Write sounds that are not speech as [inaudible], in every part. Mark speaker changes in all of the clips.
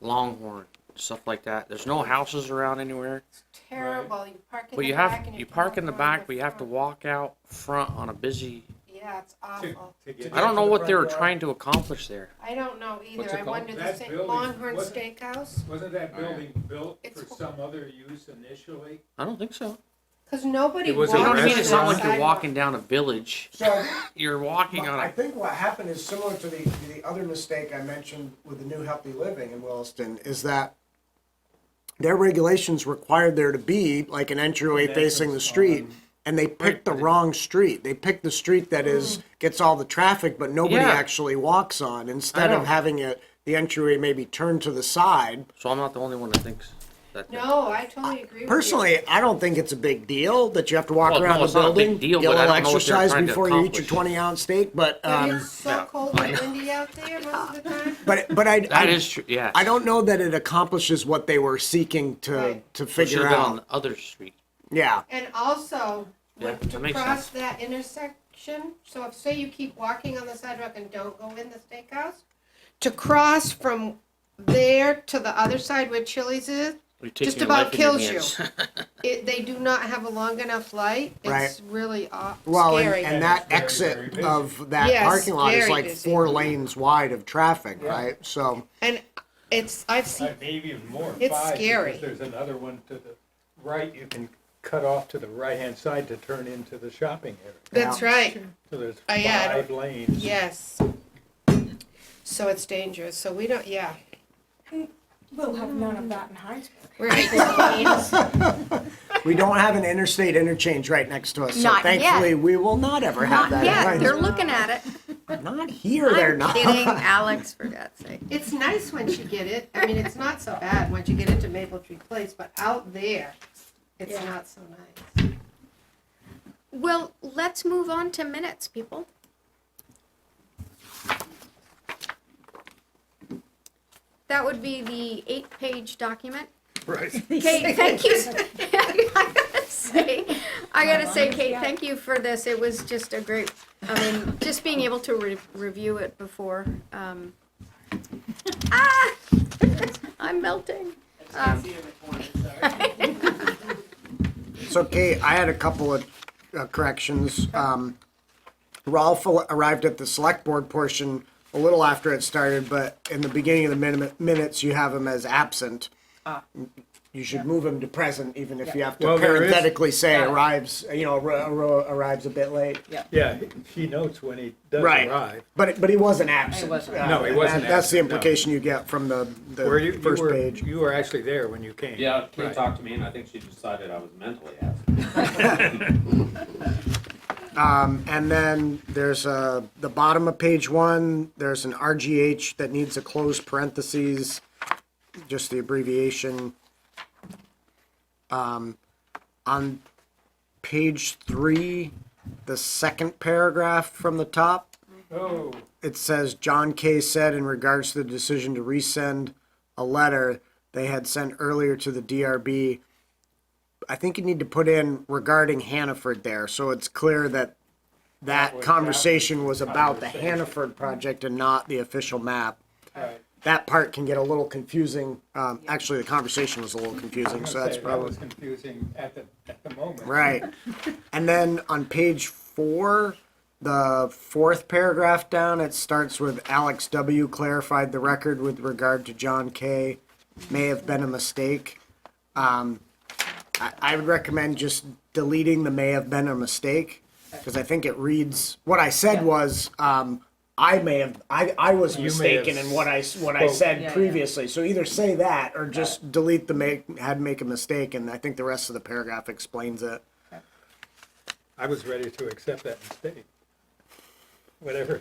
Speaker 1: Longhorn, stuff like that. There's no houses around anywhere.
Speaker 2: It's terrible. You park in
Speaker 1: But
Speaker 2: the
Speaker 1: you
Speaker 2: back
Speaker 1: have,
Speaker 2: and
Speaker 1: you park in the
Speaker 2: around
Speaker 1: back, but you have to
Speaker 2: front.
Speaker 1: walk out front on a busy,
Speaker 2: Yeah, it's awful.
Speaker 1: I don't know what they were trying to accomplish there.
Speaker 2: I don't know
Speaker 3: What's
Speaker 2: either. I
Speaker 3: it called?
Speaker 2: wonder the
Speaker 4: That
Speaker 2: same
Speaker 4: building
Speaker 2: Longhorn
Speaker 4: was-
Speaker 2: Steakhouse,
Speaker 4: Wasn't that
Speaker 3: Oh, yeah.
Speaker 4: building built
Speaker 2: It's-
Speaker 4: for some other use initially?
Speaker 1: I don't think so.
Speaker 2: because nobody
Speaker 3: It
Speaker 2: walks
Speaker 3: was
Speaker 1: You
Speaker 3: a
Speaker 1: know
Speaker 2: on
Speaker 1: what I mean?
Speaker 2: the
Speaker 1: It's not like you're
Speaker 2: sidewalk.
Speaker 1: walking down a village.
Speaker 5: So
Speaker 1: You're walking on
Speaker 5: I
Speaker 1: a,
Speaker 5: think what happened is similar to the, to the other mistake I mentioned with the new healthy living in Williston is that their regulations required there to be like an entryway facing
Speaker 1: uh-huh.
Speaker 5: the street. And they picked the wrong street. They picked the street that is, gets all the traffic, but nobody
Speaker 1: Mm. Yeah.
Speaker 5: actually walks on. Instead
Speaker 1: know.
Speaker 5: of having it, the entryway maybe turned to the side.
Speaker 1: so I'm not the only one that thinks that.
Speaker 2: No, I totally agree with you.
Speaker 5: Personally, I don't think it's a big deal that you have to walk
Speaker 1: Well, no,
Speaker 5: around the
Speaker 1: it's not a big
Speaker 5: building.
Speaker 1: deal,
Speaker 5: Get
Speaker 1: but
Speaker 5: a
Speaker 1: I
Speaker 5: little
Speaker 1: don't know what they're
Speaker 5: exercise
Speaker 1: trying to
Speaker 5: before you eat your
Speaker 1: accomplish.
Speaker 5: twenty ounce steak, but
Speaker 2: But
Speaker 5: um,
Speaker 2: it's so cold and windy out there most of the time.
Speaker 5: but but I
Speaker 1: That
Speaker 5: I-
Speaker 1: is true, yeah.
Speaker 5: I don't know that it accomplishes what they were seeking to
Speaker 2: Right.
Speaker 5: to
Speaker 1: It should've
Speaker 5: figure
Speaker 1: been on
Speaker 5: out.
Speaker 1: the other street.
Speaker 5: Yeah,
Speaker 2: And also,
Speaker 1: Yeah,
Speaker 2: when-
Speaker 1: that
Speaker 2: to
Speaker 1: makes
Speaker 2: cross that intersection, so if, say you keep walking on the sidewalk and don't go in the steakhouse, to cross from there to the other side where Chili's is,
Speaker 1: You're taking
Speaker 2: Just
Speaker 1: your
Speaker 2: about
Speaker 1: life in your
Speaker 2: kills you.
Speaker 1: hands.
Speaker 2: it, they do not have a long enough light. It's really aw-
Speaker 5: well, and,
Speaker 2: scary.
Speaker 5: and
Speaker 4: Yeah,
Speaker 5: that
Speaker 4: it's very, very
Speaker 5: exit
Speaker 4: busy.
Speaker 5: of that
Speaker 2: Yes,
Speaker 5: parking lot is
Speaker 2: very
Speaker 5: like
Speaker 2: busy.
Speaker 5: four lanes wide of traffic, right? So
Speaker 2: And it's, I've seen,
Speaker 4: Uh, Maybe even more.
Speaker 2: It's
Speaker 4: five,
Speaker 2: scary.
Speaker 4: Because there's another one to the right, you can cut off to the right-hand side to turn into the shopping area.
Speaker 2: that's right,
Speaker 4: So there's
Speaker 2: Oh, yeah.
Speaker 4: five lanes.
Speaker 2: yes. So it's dangerous, so we don't, yeah.
Speaker 6: We'll have none of that in Heinsberg.
Speaker 7: [laughs]
Speaker 2: Right.
Speaker 5: we don't have an interstate interchange right next to us. So
Speaker 8: Not yet.
Speaker 5: thankfully, we will not ever have that. in
Speaker 8: Not yet.
Speaker 5: Heinz-
Speaker 8: They're looking at it.
Speaker 5: not here. [laughs] they're
Speaker 8: I'm
Speaker 5: not. [laughs]
Speaker 8: Kidding, Alex, for God's sake.
Speaker 2: It's nice once you get it, I mean, it's not so bad once you get into Maple Tree Place, but out there, it's
Speaker 6: Yeah.
Speaker 2: not so nice.
Speaker 8: Well, let's move on to minutes, people. That would be the eight-page document.
Speaker 3: Right.
Speaker 8: Kate, thank you. [laughs] I gotta say, I gotta say, Kate, thank you for this. It was just a great, I mean, just being able to re- review it before. Um, [laughs] ah, [laughs] I'm melting. Um,
Speaker 5: So Kate, I had a couple of uh, corrections. Um, Rolf al- arrived at the select board portion a little after it started, but in the beginning of the min- minutes, you have him as absent. You should move him to present, even if you have to
Speaker 4: Well, there is-
Speaker 5: parenthetically say
Speaker 7: Yeah.
Speaker 5: arrives, you know, arri- arri- arrives a bit late.
Speaker 4: Yeah, he notes when he does
Speaker 5: Right.
Speaker 4: arrive.
Speaker 5: But, but he wasn't absent.
Speaker 7: wasn't.
Speaker 5: Uh,
Speaker 4: No, he
Speaker 5: and
Speaker 4: wasn't
Speaker 5: that- That's the
Speaker 4: absent, no.
Speaker 5: implication you get from the,
Speaker 4: Where you,
Speaker 5: the
Speaker 4: you
Speaker 5: first
Speaker 4: were,
Speaker 5: page.
Speaker 4: you were actually there when you came.
Speaker 3: Yeah, Kate
Speaker 4: Right.
Speaker 3: talked to me and I think she decided I was mentally absent.
Speaker 5: Um, and then there's a, the bottom of page one, there's an RGH that needs a closed parentheses, just the abbreviation. Um, on page three, the second paragraph from the top,
Speaker 4: Oh,
Speaker 5: it says John Kay said in regards to the decision to resend a letter they had sent earlier to the DRB. I think you need to put in regarding Hannaford there, so it's clear that that conversation was about the Hannaford project and not the official map.
Speaker 4: right.
Speaker 5: That part can get a little confusing. Um, actually, the conversation was a little confusing, so
Speaker 4: Okay,
Speaker 5: that's
Speaker 4: That
Speaker 5: probably.
Speaker 4: was confusing at the, at the moment.
Speaker 5: Right. And then on page four, the fourth paragraph down, it starts with Alex W. clarified the record with regard to John K. May have been a mistake. Um, I, I would recommend just deleting the may have been a mistake because I think it reads, what I said was, um, I may have, I, I was
Speaker 4: You may have
Speaker 5: mistaken in what I, s- what I
Speaker 4: spoke-
Speaker 5: said
Speaker 7: Yeah, yeah.
Speaker 5: previously. So either say that or just delete the make, had make a mistake. And I think the rest of the paragraph explains it.
Speaker 4: I was ready to accept that mistake. Whatever,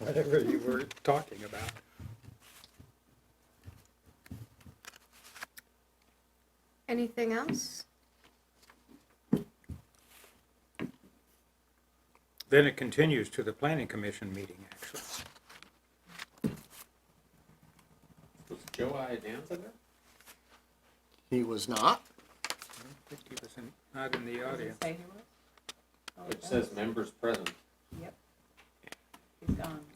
Speaker 4: whatever you were talking about.
Speaker 8: Anything else?
Speaker 4: Then it continues to the planning commission meeting, actually.
Speaker 3: Was Joe Iadanza there?
Speaker 5: He was not.
Speaker 4: I think he was in- not in the audience.
Speaker 7: Say he was? Oh,
Speaker 3: Which says members present.
Speaker 7: Oh, He's gone.
Speaker 8: Uh,